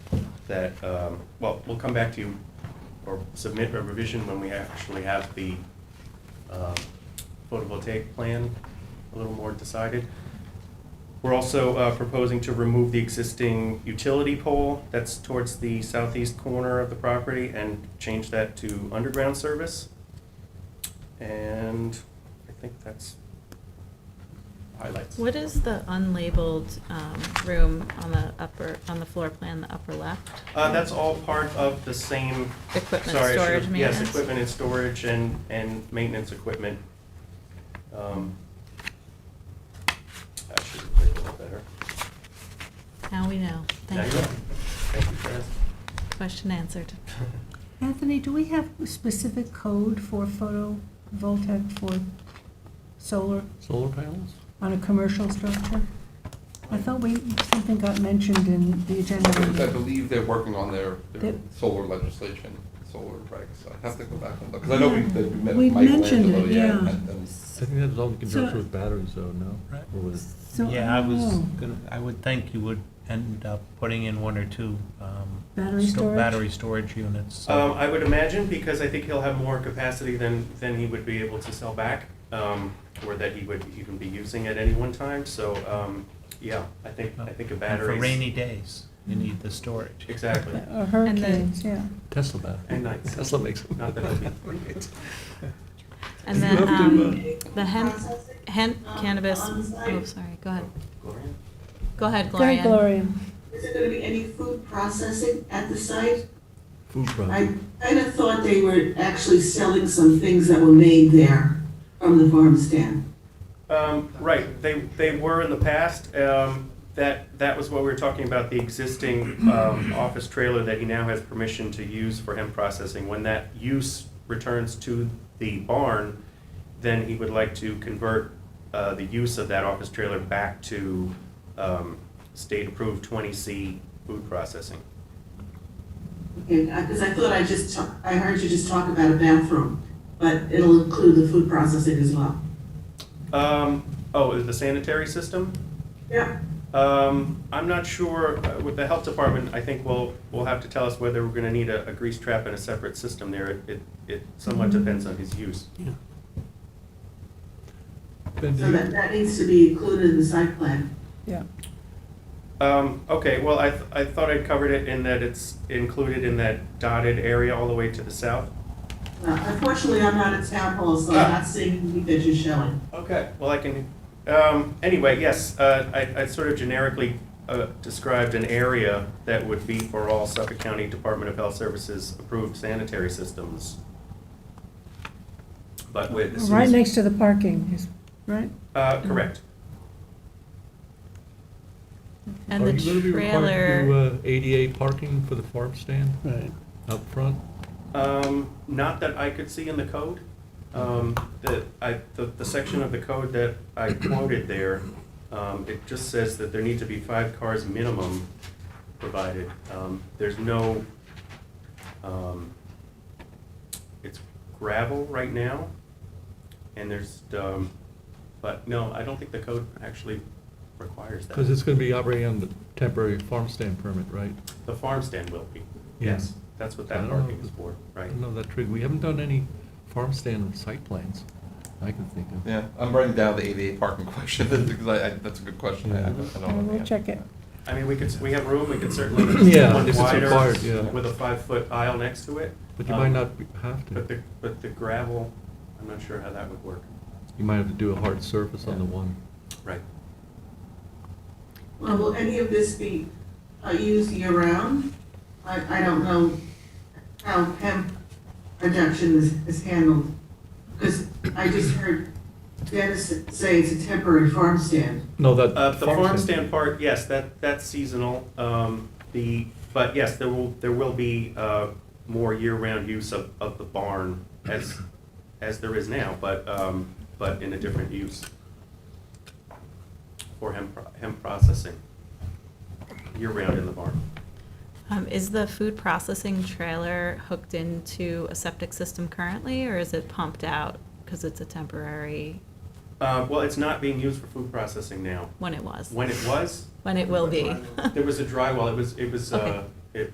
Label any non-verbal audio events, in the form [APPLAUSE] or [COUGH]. that, um, well, we'll come back to you or submit a revision when we actually have the um, photovoltaic plan a little more decided. We're also uh, proposing to remove the existing utility pole that's towards the southeast corner of the property and change that to underground service. And I think that's highlights. What is the unlabeled um, room on the upper, on the floor plan, the upper left? Uh, that's all part of the same. Equipment Sorry, I should storage have- Yes, maintenance? equipment and storage and, and maintenance equipment. Um, I should have played a little better. Now we know. Thank There you. go. Thank you, Chris. Question answered. Anthony, do we have specific code for photovoltaic for solar Solar panels? on a commercial structure? I thought we, something got mentioned in the agenda. I meeting. believe they're working on their, their That- solar legislation, solar regs, I have to go back and look, because I know we, that we met We with Michael mentioned it, Angelo, yeah, yeah. and- and- I think that's all in So- conjunction with batteries though, no? Right. Or with, So, Yeah, I was oh, gonna, I would think you would end up putting in one or two, um. Battery sto- storage? Battery storage units. [LAUGHS] so- Um, I would imagine, because I think he'll have more capacity than, than he would be able to sell back, um, or that he would even be using at any one time, so, um, yeah, I think, I think a uh, And battery. For rainy days, you need the storage. Exactly, Or hurricanes, yeah. Tesla batteries. and nights, Tesla makes them. not that it'll be. [LAUGHS] And You then have to, uh, um, the hemp, hemp cannabis, oh, sorry, go ahead. Gloria? Go ahead, Very Gloria. Gloria. Is there gonna be any food processing at the site? Food I problem. kinda thought they were actually selling some things that were made there from the farm stand. Um, right, they, they were in the past, um, that, that was what we were talking about, the existing, um, office trailer that he now has permission to use for hemp processing. When that use returns to the barn, then he would like to convert, uh, the use of that office trailer back to, um, state-approved twenty C food processing. Okay, because I thought I just, ta- I heard you just talk about a bathroom, but it'll include the food processing as well. Um, oh, is the sanitary system? Yeah. Um, I'm not sure, uh, with the health department, I think we'll, we'll have to tell us whether we're gonna need a, a grease trap and a separate system there. It- It, it somewhat depends on his use. Ben, do So you- that, that needs to be included in the site plan. Um, okay, well, I, th- I thought I covered it in that it's included in that dotted area all the way to the south. Uh, Unfortunately, I'm not at town hall, so I'm not seeing anything that you're showing. Okay. Well, I can, um, anyway, yes, uh, I, I sort of generically, uh, described an area that would be for all Suffolk County Department of Health Services approved sanitary systems. But with. as soon Right as- next to the parking, is- right? Uh, correct. And Are you gonna the be required to trailer, uh, ADA parking for the farm stand? Right. Up front? Um, not that I could see in the code. Um, the, I, the, the section of the code that I quoted there, um, it just says that there need to be five cars minimum provided. Um, there's no, um, it's gravel right now, and there's, um, but no, I don't think the code actually requires that. Because it's gonna be operating on the temporary farm stand permit, right? The farm stand will be, Yeah. yes, that's what I that don't know. parking is for, I right? don't know that trick. We haven't done any farm stand site plans I can think of. Yeah, I'm writing down the ADA parking [LAUGHS] question, because I, I, that's a good question, I, I don't- I don't know. the We'll answer check to it. that. I mean, we could, we have room, we could [CLEARS THROAT] certainly Yeah, one if it's required, wider yeah. with a five-foot aisle next to it. But you Um, might not be- have But to. the, but the gravel, I'm not sure how that would work. You might have to do a hard surface on the one. Right. Well, will any of this be uh, used year-round? I, I don't know how hemp production is, is handled, because I just heard Dennis say it's a temporary farm stand. No, that. Uh, the farm stand part, yes, that, that's seasonal. Um, the, but yes, there will, there will be, uh, more year-round use of, of the barn as, as there is now, but, um, but in a different use. For hemp, pro- hemp processing, year-round in the barn. uh, um, is the food processing trailer hooked into a septic system currently, or is it pumped out? Because it's a temporary, Uh, well, it's not being used for food processing now. when it was, When it was, when it will be. there was a dry well. It was, it was, uh, Okay.